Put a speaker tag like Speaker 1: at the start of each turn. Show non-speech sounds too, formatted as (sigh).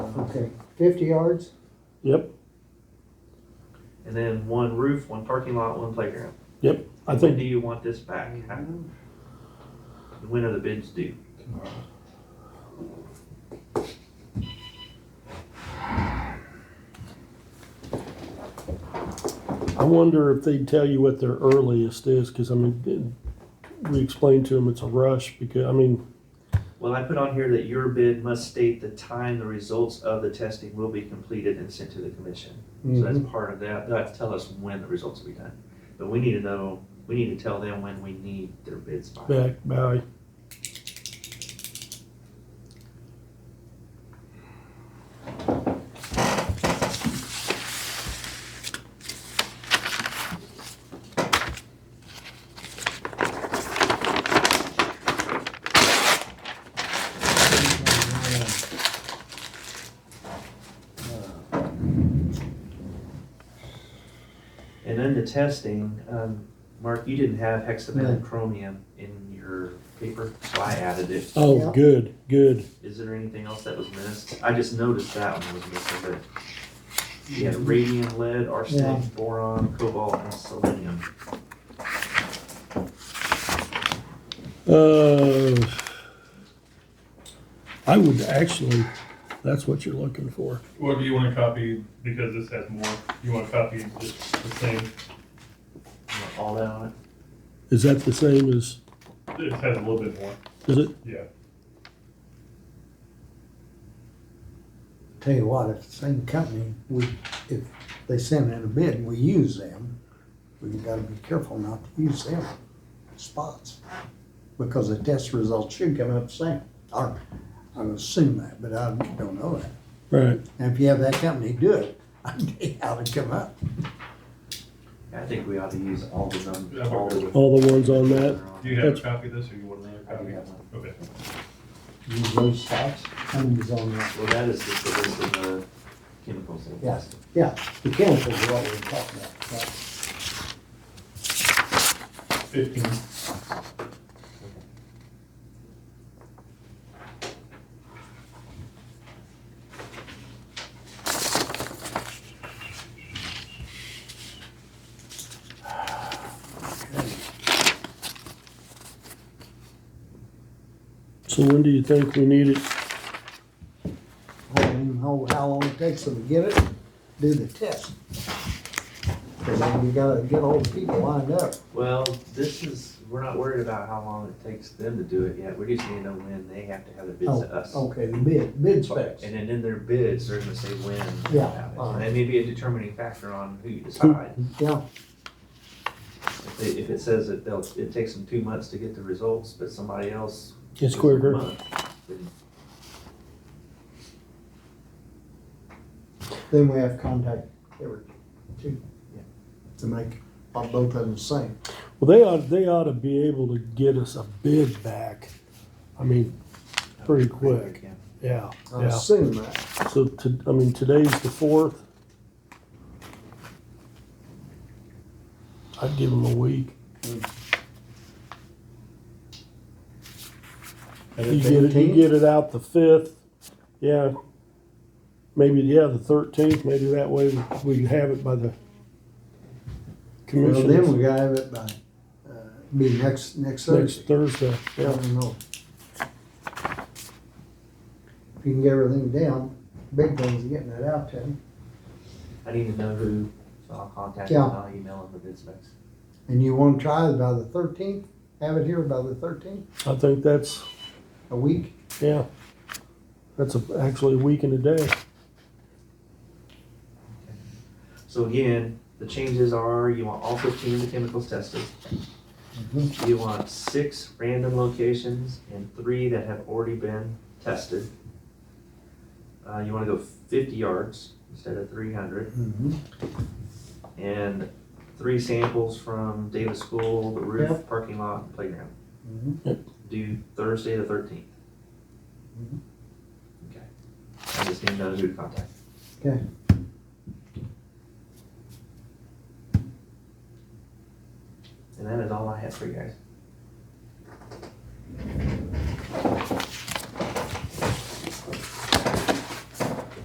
Speaker 1: Okay, fifty yards?
Speaker 2: Yep,
Speaker 3: And then one roof, one parking lot, one playground.
Speaker 2: yep. I
Speaker 3: When
Speaker 2: think
Speaker 3: do you want this back? How- When are the bids due?
Speaker 2: I wonder if they'd tell you what their earliest is, because I mean, we explained to them it's a rush because I mean,
Speaker 3: Well, I put on here that your bid must state the time the results of the testing will be completed and sent to the commission. So
Speaker 2: Mm-hmm.
Speaker 3: that's part of that. They'll have to tell us when the results will be done. But we need to know, we need to tell them when we need their bids by.
Speaker 2: back by
Speaker 1: Uh,
Speaker 3: And then the testing, um, Mark, you didn't have hexavalent chromium in your paper, so I added it.
Speaker 2: oh,
Speaker 1: Yeah.
Speaker 2: good, good.
Speaker 3: Is there anything else that was missed? I just noticed that one was missing, but you had radium,
Speaker 1: Mm-hmm.
Speaker 3: lead,
Speaker 1: Yeah.
Speaker 3: arsenic, boron, cobalt, and selenium.
Speaker 2: Uh, I would actually. That's what you're looking for.
Speaker 4: What do you want to copy, because this has more, you want to copy just the same,
Speaker 3: You want All that on it?
Speaker 2: Is that the same as?
Speaker 4: it has a little bit more,
Speaker 2: Is it?
Speaker 4: yeah.
Speaker 1: Tell you what, if the same company, we, if they send in a bid and we use them, we gotta be careful not to use them spots. Because the test results should come up the same. I, I would assume that, but I don't know that.
Speaker 2: Right.
Speaker 1: And if you have that company do it, (laughs) I think how it come up.
Speaker 3: I think we ought to use all the numbers.
Speaker 4: Yeah, I'm okay with
Speaker 2: All the ones on that.
Speaker 4: Do you have a copy of this, or you want another
Speaker 3: I do
Speaker 4: copy?
Speaker 3: have one.
Speaker 4: Okay.
Speaker 1: Use those spots, companies on that.
Speaker 3: Well, that is just the list of the chemicals. that-
Speaker 1: Yes, yeah, the chemicals are what we're talking about. right.
Speaker 4: Fifteen,
Speaker 2: So when do you think we need it?
Speaker 1: How long, how long it takes them to get it, do the test. Cause then you gotta get all the people lined up.
Speaker 3: Well, this is, we're not worried about how long it takes them to do it yet. We just need to know when they have to have the bids
Speaker 1: Oh,
Speaker 3: to us.
Speaker 1: Okay, the bid, bid specs.
Speaker 3: And then in their bids, they're gonna say when. they
Speaker 1: Yeah,
Speaker 3: have it.
Speaker 1: all right.
Speaker 3: And that may be a determining factor on
Speaker 1: (clears throat)
Speaker 3: who you decide.
Speaker 1: Yeah,
Speaker 3: If they- If it says that they'll, it takes them two months to get the results, but somebody else.
Speaker 2: It's
Speaker 3: is a
Speaker 2: quicker.
Speaker 3: month, then
Speaker 1: then we have contact every two, yeah, to make on both of them the same.
Speaker 2: Well, they ought they ought to be able to get us a bid back. I mean, Pretty quick.
Speaker 3: yeah.
Speaker 2: yeah,
Speaker 1: I
Speaker 2: yeah.
Speaker 1: assume that.
Speaker 2: So to, I mean, today's the fourth. I'd give them a week. You get it, you get it out the fifth, yeah. Maybe, yeah, the thirteenth, maybe that way we can have it by the
Speaker 1: Well, then
Speaker 2: commission
Speaker 1: we gotta have it by, uh, be next, next
Speaker 2: next
Speaker 1: Thursday.
Speaker 2: Thursday.
Speaker 1: I don't know. If you can get everything down, big things getting it out to them.
Speaker 3: I need to know who, so I'll contact
Speaker 1: Yeah.
Speaker 3: them, and I'll email them the bid specs.
Speaker 1: And you want to try it by the thirteenth? Have it here by the thirteenth,
Speaker 2: I think that's,
Speaker 1: a week?
Speaker 2: yeah, that's a- actually a week and a day.
Speaker 3: So again, the changes are you want all fifteen of the chemicals tested. You want six random locations and three that have already been tested. Uh, you wanna go fifty yards instead of three hundred,
Speaker 1: Mm-hmm.
Speaker 3: and three samples from Davis School, the roof, parking lot, and playground.
Speaker 1: Mm-hmm.
Speaker 3: Do Thursday the thirteenth.
Speaker 1: Mhm.
Speaker 3: Okay. I just need to know who to contact.
Speaker 1: Okay.
Speaker 3: And that is all I have for you guys.